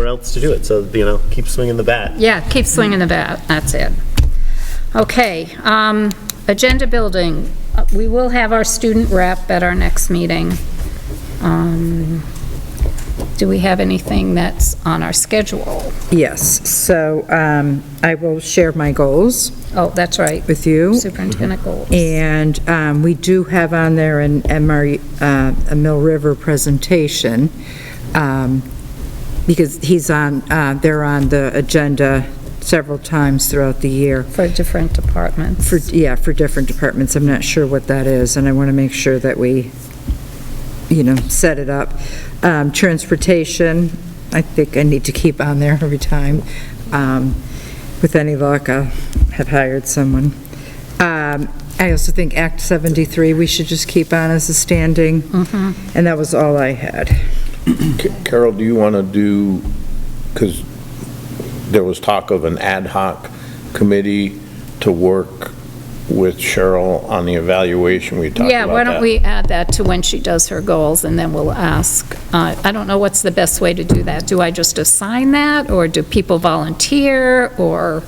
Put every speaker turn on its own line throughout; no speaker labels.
else to do it, so, you know, keep swinging the bat.
Yeah, keep swinging the bat, that's it. Okay, um, agenda building. Uh, We will have our student rep at our next meeting. Um, Do we have anything that's on our schedule?
Yes, so um, I will share my goals
Oh, that's right,
with you.
superintendent goals.
And um, we do have on there an MR, uh, a Mill River presentation, um, because he's on, uh, they're on the agenda several times throughout the year.
For different departments.
For, yeah, for different departments, I'm not sure what that is, and I want to make sure that we, you know, set it up. Um, Transportation, I think I need to keep on there every time. Um, With any luck, I'll have hired someone. Um, I also think Act 73, we should just keep on as a standing, and that was all I had.
Carol, do you want to do, because there was talk of an ad hoc committee to work with Cheryl on the evaluation, we talked about
Yeah,
that.
why don't we add that to when she does her goals, and then we'll ask. Uh, I don't know what's the best way to do that. Do I just assign that, or do people volunteer, or?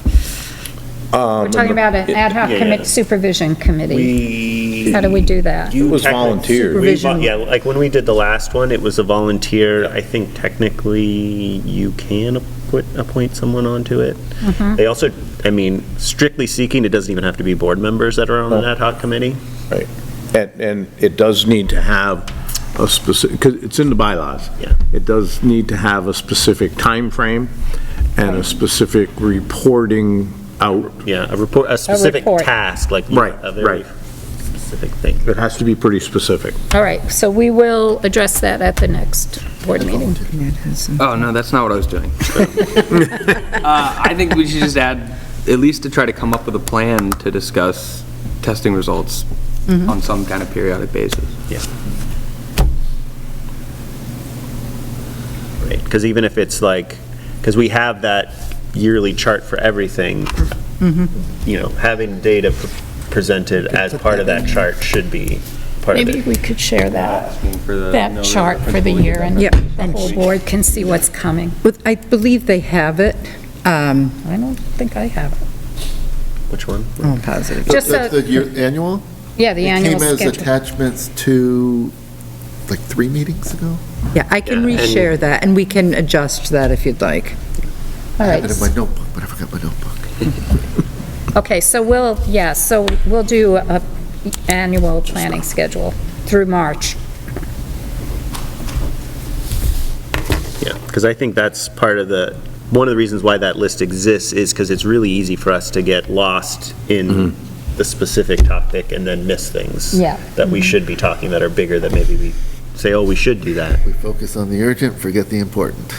Um,
We're talking about an ad hoc
Yeah,
commit-
yeah.
supervision committee.
We.
How do we do that?
You
It was
technically-
volunteers.
we vo-
Supervision.
Yeah, like when we did the last one, it was a volunteer. I think technically you can appoint, appoint someone onto it.
Mm-hmm.
They also, I mean, strictly speaking, it doesn't even have to be board members that are on an ad hoc committee.
Right. And, and it does need to have a specific, because it's in the bylaws.
Yeah.
It does need to have a specific time frame and a specific reporting out.
Yeah, a report, a specific
report.
task, like.
Right,
A very
right.
specific thing.
It has to be pretty specific.
All right, so we will address that at the next board meeting.
Oh, no, that's not what I was doing. Uh, I think we should just add, at least to try to come up with a plan to discuss testing results on some kind of periodic basis.
Right, because even if it's like, because we have that yearly chart for everything,
Mm-hmm.
you know, having data p- presented as part of that chart should be part of
Maybe
it.
we could share that,
Asking for the- no,
that
the
chart for the
principal
year, and
Yeah.
the whole board can see what's coming.
With- I believe they have it. Um, oh,
I don't think I have it.
Which one?
Oh.
I'm positive.
Just
That's
so,
the year- annual?
yeah, the annual
It came as
schedule.
attachments to, like, three meetings ago?
Yeah, I can
Yeah, and-
reshare that, and we can adjust that if you'd like.
All
I
right.
have it in my notebook, but I forgot my notebook.
Okay, so we'll, yeah, so we'll do a annual planning schedule through March.
Yeah, because I think that's part of the, one of the reasons why that list exists is because it's really easy for us to get lost in the specific topic and then miss things.
Yeah. Mm-hmm.
That we should be talking that are bigger that maybe we say, oh, we should do that.
We focus on the urgent, forget the important.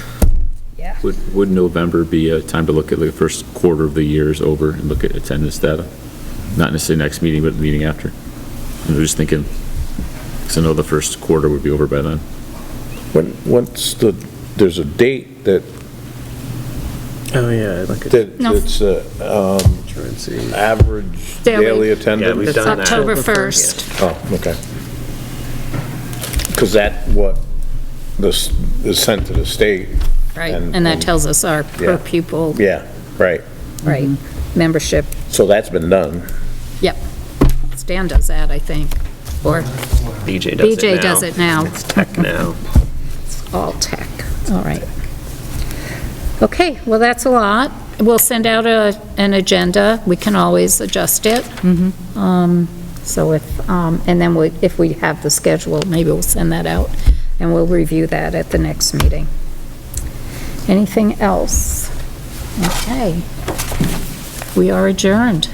Yeah.
Would, would November be a time to look at the first quarter of the year's over and look at attendance data? Not necessarily next meeting, but the meeting after? I'm just thinking, because I know the first quarter would be over by then.
When, what's the, there's a date that,
Oh, yeah, like
that
No.
it's a, um, average
Daily.
daily
Yeah, we've
attendance?
done that.
October 1st.
Oh, okay. Because that, what, this is sent to the state,
Right,
And-
and that tells us our per
Yeah.
pupil,
yeah, right.
right, membership.
So that's been done.
Yep. Stan does that, I think, or
BJ does it now.
BJ does it now.
It's tech now.
All tech, all right. Okay, well, that's a lot. We'll send out a, an agenda. We can always adjust it.
Mm-hmm.
Um, So if, um, and then we, if we have the schedule, maybe we'll send that out, and we'll review that at the next meeting. Anything else? Okay. We are adjourned.